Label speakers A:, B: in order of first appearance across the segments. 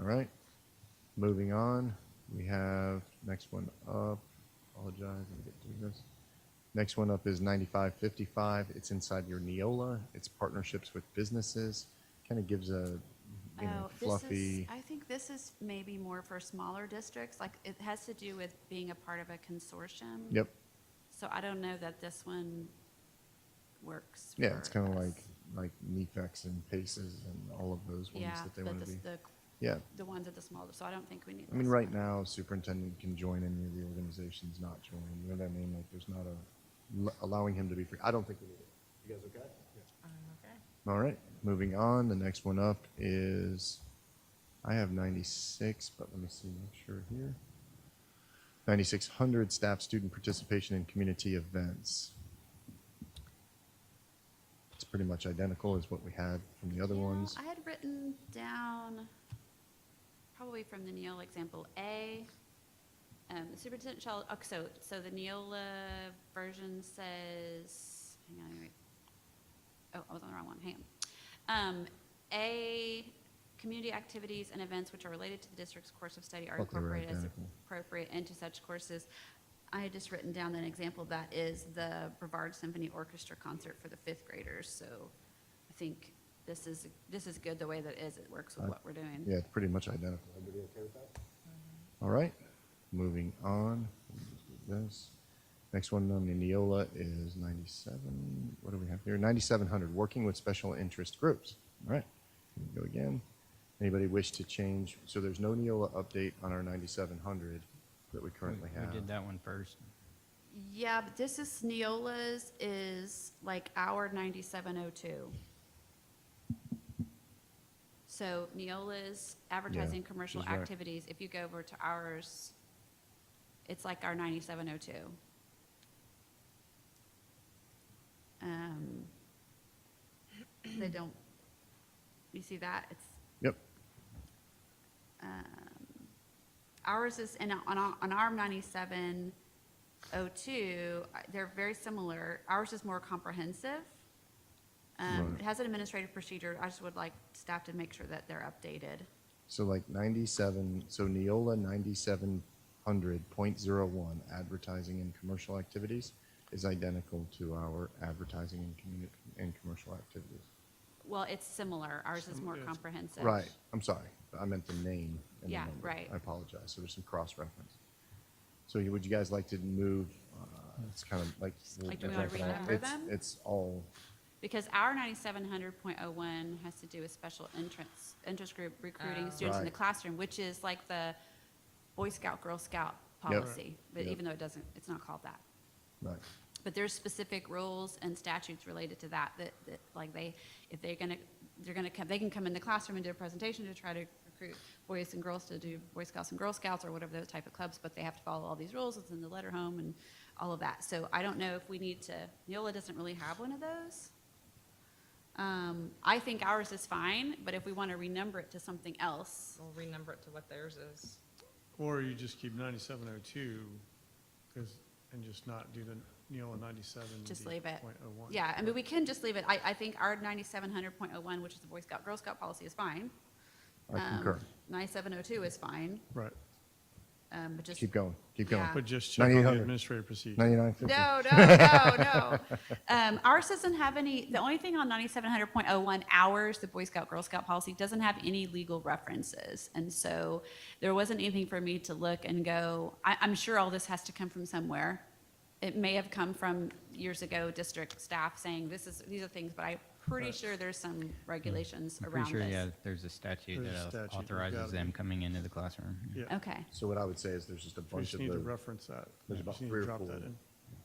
A: right. Moving on, we have next one up. Apologize, let me get through this. Next one up is 9555. It's inside your Neola. It's partnerships with businesses. Kind of gives a you know,
B: Oh,
A: fluffy.
B: This is, I think this is maybe more for smaller districts, like it has to do with being a part of a consortium.
A: Yep.
B: So I don't know that this one works.
A: Yeah, it's
B: for
A: kind of
B: us.
A: like like Nefex and Paces and all of those ones
B: Yeah,
A: that they
B: but
A: want
B: the,
A: to be.
B: the,
A: Yeah.
B: the ones at the smaller, so I don't think we need.
A: I mean,
B: this
A: right
B: one.
A: now, superintendent can join any of the organizations not join. You know what I mean? Like, there's not a l- allowing him to be free. I don't think we need it. You guys okay?
C: okay.
A: All right. Moving on. The next one up is I have 96, but let me see, make sure here. 9600 staff student participation in community events. It's pretty much identical as what we had from the other
B: You know,
A: ones.
B: I had written down, probably from the Neola example, A, um, the superintendent shall, oh, so, so the Neola version says, hang on, wait. Oh, I was on the wrong one, hang on. Um, A, community activities and events which are related to the district's course of study are
A: Thought they were
B: incorporated as
A: identical.
B: appropriate into such courses. I had just written down an example of that is the Brevard Symphony Orchestra concert for the fifth graders, so I think this is, this is good the way that it is, it works with
A: I-
B: what we're doing.
A: Yeah, it's pretty much identical. Everybody okay with that? All right, moving on. Let me just do This next one on the Neola is 97. What do we have here? 9700. Working with special interest groups. All right, here we go again. Anybody wish to change? So there's no Neola update on our 9700 that we currently
D: We-
A: have.
D: We did that one first.
B: Yeah, but this is Neola's is like our ninety-seven oh two. So Neola's advertising commercial
A: she's right.
B: activities, if you go over to ours, it's like our ninety-seven oh two. Um, they don't, you see that? It's,
A: Yep.
B: um, Ours is, and on, our- on our ninety-seven oh two, they're very similar. Ours is more comprehensive. Um,
A: Right.
B: it has an administrative procedure. I just would like staff to make sure that they're updated.
A: So like 97. So Neola 9700.01 advertising and commercial activities is identical to our advertising and community and commercial activities.
B: Well, it's similar. Ours is more comprehensive.
A: Right, I'm sorry, I meant the name and the
B: Yeah,
A: number.
B: right.
A: I apologize, so there's some cross-reference. So you- would you guys like to move, uh, it's kind of like.
B: Like, do we wanna
A: It's-
B: renumber them?
A: It's all,
B: Because our ninety-seven hundred point oh one has to do with special entrance, interest group recruiting
C: Oh.
B: students in the
A: Right.
B: classroom, which is like the Boy Scout, Girl Scout
A: Yep.
B: policy. But
A: Yep.
B: even though it doesn't, it's not called that.
A: right,
B: But there's specific rules and statutes related to that, that, that, like, they, if they're gonna, they're gonna come, they can come in the classroom and do a presentation to try to recruit boys and girls to do Boy Scouts and Girl Scouts or whatever those type of clubs, but they have to follow all these rules, it's in the letter home and all of that. So I don't know if we need to, Neola doesn't really have one of those. Um, I think ours is fine, but if we wanna renumber it to something else,
C: We'll renumber it to what theirs is.
E: Or you just keep ninety-seven oh two, because, and just not do the Neola ninety-seven.
B: Just leave it.
E: Point oh one.
B: Yeah, I mean, we can just leave it. I, I think our ninety-seven hundred point oh one, which is the Boy Scout, Girl Scout policy is fine.
A: I concur.
B: Ninety-seven oh two is fine,
E: Right,
B: um, but just.
A: keep going, keep going.
B: Yeah.
E: but just check on the
A: 9800.
E: administrative procedure.
A: 9950.
B: No, no, no, no. Um, ours doesn't have any, the only thing on ninety-seven hundred point oh one, ours, the Boy Scout, Girl Scout policy, doesn't have any legal references. And so there wasn't anything for me to look and go, I, I'm sure all this has to come from somewhere. It may have come from years ago, district staff saying, this is, these are things, but I'm pretty
E: Right.
B: sure there's some regulations
D: I'm
B: around
D: pretty sure, yeah,
B: this.
D: there's a statute
E: There's a
D: that
E: statute, you
D: authorizes
E: gotta
D: them
E: be-
D: coming into the classroom.
E: Yeah,
B: Okay,
A: So what I would say is there's just a
E: we
A: bunch
E: just
A: of
E: need
A: the,
E: to reference that.
A: There's
E: We
A: about
E: just need to
A: three or
E: drop
A: four.
E: that in.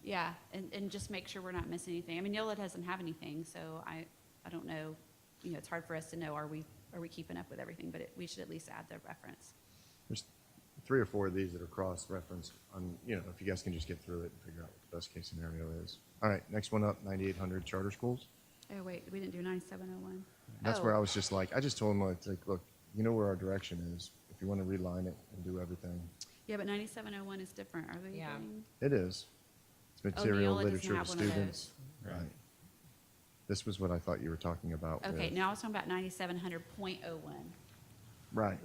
B: yeah, and, and just make sure we're not missing anything. I mean, Neola doesn't have anything, so I, I don't know, you know, it's hard for us to know, are we, are we keeping up with everything? But it, we should at least add the reference.
A: there's three or four of these that are cross-referenced on, you know, if you guys can just get through it and figure out what the best case scenario is. All right, next one up, 9800 charter schools.
B: Oh, wait, we didn't do ninety-seven oh one.
A: That's where I was just like, I just told him, like, it's like, look, you know where our direction is. If you want to reline it and do everything,
B: Yeah, but ninety-seven oh one is different, are they?
C: Yeah.
B: doing-
A: it is. It's material,
B: Oh, Neola doesn't
A: literature
B: have
A: to
B: one of
A: students.
D: those.
A: Right. This was what I thought you were talking about.
B: Okay,
A: with-
B: now I was talking about ninety-seven hundred point oh one.
A: Right.